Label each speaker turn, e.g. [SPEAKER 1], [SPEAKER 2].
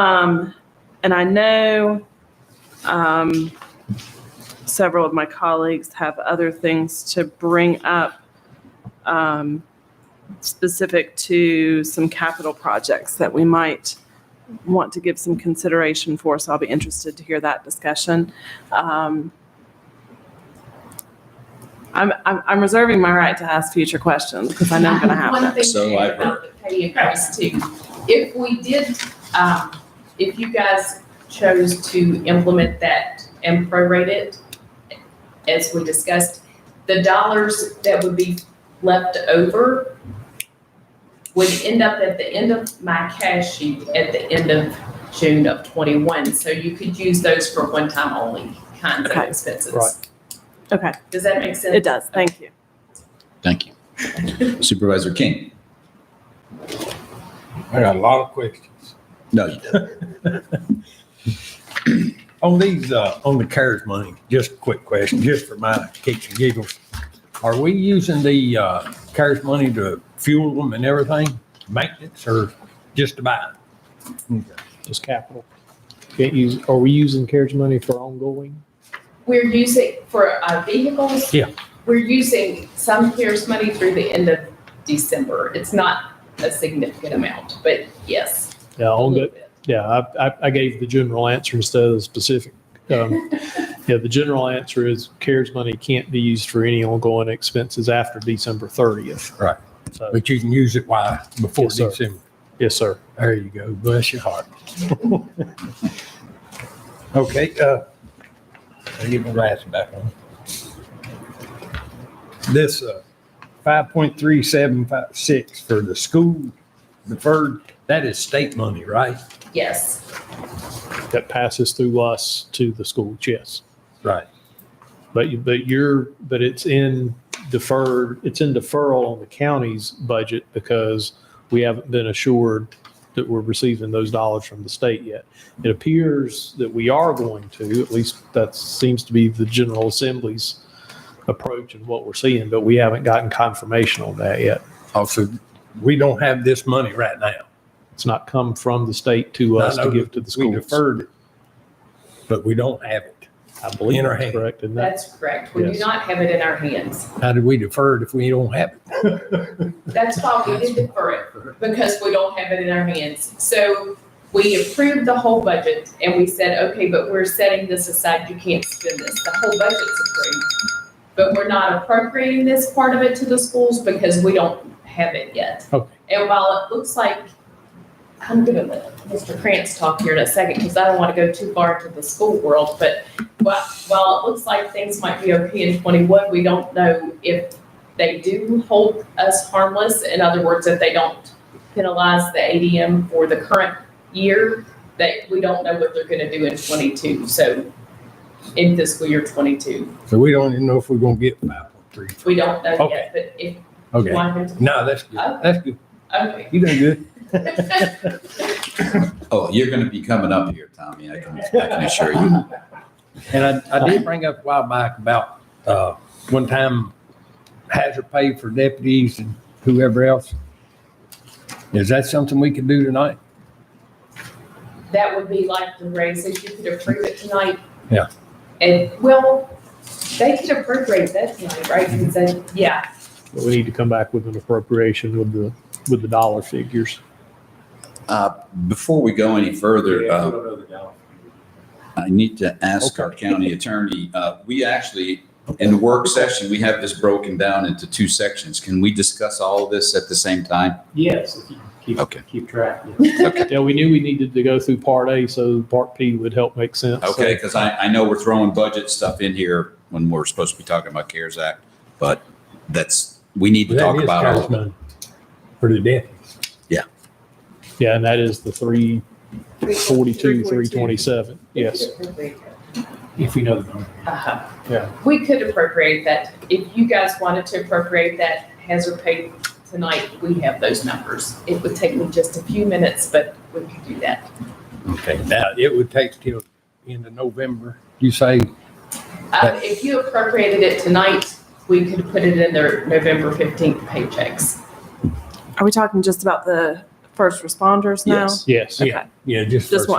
[SPEAKER 1] Um, and I know um, several of my colleagues have other things to bring up um, specific to some capital projects that we might want to give some consideration for. So I'll be interested to hear that discussion. Um, I'm, I'm, I'm reserving my right to ask future questions because I know I'm going to have
[SPEAKER 2] One
[SPEAKER 1] them.
[SPEAKER 2] thing
[SPEAKER 3] So
[SPEAKER 2] too
[SPEAKER 3] I've
[SPEAKER 2] about the pay increase too, if we did, um, if you guys chose to implement that and prorate it, as we discussed, the dollars that would be left over would end up at the end of my cash sheet at the end of June of twenty-one. So you could use those for one-time only kinds of
[SPEAKER 1] Okay.
[SPEAKER 2] expenses.
[SPEAKER 4] Right.
[SPEAKER 1] Okay,
[SPEAKER 2] Does that make sense?
[SPEAKER 1] it does. Thank you.
[SPEAKER 3] Thank you. Supervisor King?
[SPEAKER 4] I got a lot of questions.
[SPEAKER 3] No, you didn't.
[SPEAKER 4] On these, uh, on the CARES money, just a quick question, just for my kicks and giggles. Are we using the, uh, CARES money to fuel them and everything, maintenance or just to buy?
[SPEAKER 5] Mm.
[SPEAKER 4] them?
[SPEAKER 5] just capital. Can't use, are we using carriage money for ongoing?
[SPEAKER 2] We're using for uh, vehicles.
[SPEAKER 4] Yeah.
[SPEAKER 2] We're using some CARES money through the end of December. It's not a significant amount, but yes.
[SPEAKER 5] Yeah,
[SPEAKER 2] a little
[SPEAKER 5] ongoing,
[SPEAKER 2] bit.
[SPEAKER 5] yeah, I, I, I gave the general answer instead of the specific. Um, Yeah, the general answer is carriage money can't be used for any ongoing expenses after December thirtieth.
[SPEAKER 4] Right.
[SPEAKER 5] So,
[SPEAKER 4] But you can use it while, before
[SPEAKER 5] Yes, sir.
[SPEAKER 4] December.
[SPEAKER 5] yes, sir.
[SPEAKER 4] There you go. Bless your heart. Okay, uh, I get my glass back on. This, uh, five point three seven five six for the school deferred, that is state money, right?
[SPEAKER 2] Yes.
[SPEAKER 5] That passes through us to the schools, yes.
[SPEAKER 4] Right.
[SPEAKER 5] But you, but you're, but it's in deferred, it's in deferral on the county's budget because we haven't been assured that we're receiving those dollars from the state yet. It appears that we are going to, at least that seems to be the General Assembly's approach and what we're seeing, but we haven't gotten confirmation on that yet.
[SPEAKER 4] Also, we don't have this money right now.
[SPEAKER 5] It's not come from the state to us
[SPEAKER 4] I
[SPEAKER 5] to
[SPEAKER 4] know
[SPEAKER 5] give to the
[SPEAKER 4] We
[SPEAKER 5] schools.
[SPEAKER 4] deferred it, but we don't have it.
[SPEAKER 5] I believe
[SPEAKER 4] in our
[SPEAKER 5] that's
[SPEAKER 4] hand.
[SPEAKER 5] correct. And that,
[SPEAKER 2] That's correct. We do
[SPEAKER 5] Yes.
[SPEAKER 2] not have it in our hands.
[SPEAKER 4] How do we defer it if we don't have it?
[SPEAKER 2] That's why we did defer it, because we don't have it in our hands. So we approved the whole budget and we said, okay, but we're setting this aside. You can't spend this. The whole budget's approved. But we're not appropriating this part of it to the schools because we don't have it yet.
[SPEAKER 4] Okay.
[SPEAKER 2] And while it looks like, I'm gonna let Mr. Krantz talk here in a second because I don't want to go too far into the school world, but while, while it looks like things might be okay in twenty-one, we don't know if they do hold us harmless. In other words, if they don't penalize the ADM for the current year, that we don't know what they're gonna do in twenty-two, so in fiscal year twenty-two.
[SPEAKER 4] So we don't even know if we're gonna get five point three.
[SPEAKER 2] We don't know
[SPEAKER 4] Okay.
[SPEAKER 2] yet, but if you
[SPEAKER 4] Okay.
[SPEAKER 2] want him to.
[SPEAKER 4] No, that's good. That's good.
[SPEAKER 2] Okay.
[SPEAKER 4] You done good.
[SPEAKER 3] Oh, you're going to be coming up here, Tommy. I can, I can assure you.
[SPEAKER 4] And I, I did bring up a while back about, uh, one time hazard pay for deputies and whoever else. Is that something we could do tonight?
[SPEAKER 2] That would be like the raises, you could approve it tonight.
[SPEAKER 4] Yeah.
[SPEAKER 2] And, well, they could appropriate that tonight, right? Because they, yeah,
[SPEAKER 5] but we need to come back with an appropriation with the, with the dollar figures.
[SPEAKER 3] Uh, Before we go any further, uh, I need to ask our county attorney, uh, we actually, in the work session, we have this broken down into two sections. Can we discuss all of this at the same time?
[SPEAKER 6] Yes, if you keep,
[SPEAKER 3] Okay.
[SPEAKER 6] keep track. yeah.
[SPEAKER 5] Yeah, we knew we needed to go through part A, so part P would help make sense.
[SPEAKER 3] Okay, because I, I know we're throwing budget stuff in here when we're supposed to be talking about CARES Act, but that's, we need to
[SPEAKER 4] That
[SPEAKER 3] talk
[SPEAKER 4] is
[SPEAKER 3] about all
[SPEAKER 4] college
[SPEAKER 3] of it.
[SPEAKER 4] money For the deputies.
[SPEAKER 5] So, Yeah, and that is the three forty-two, three
[SPEAKER 2] 342.
[SPEAKER 5] twenty-seven, yes.
[SPEAKER 6] If we know the number.
[SPEAKER 2] Uh-huh.
[SPEAKER 5] Yeah.
[SPEAKER 2] We could appropriate that. If you guys wanted to appropriate that hazard pay tonight, we have those numbers. It would take me just a few minutes, but we could do that.
[SPEAKER 4] Okay, now it would take till end of November, you say?
[SPEAKER 2] Um, if you appropriated it tonight, we could put it in their November fifteenth paychecks.
[SPEAKER 1] Are we talking just about the
[SPEAKER 4] first responders now?
[SPEAKER 7] Yes.
[SPEAKER 8] Yes.
[SPEAKER 4] Okay.
[SPEAKER 1] Yeah, just.
[SPEAKER 4] Just
[SPEAKER 1] for-
[SPEAKER 4] one.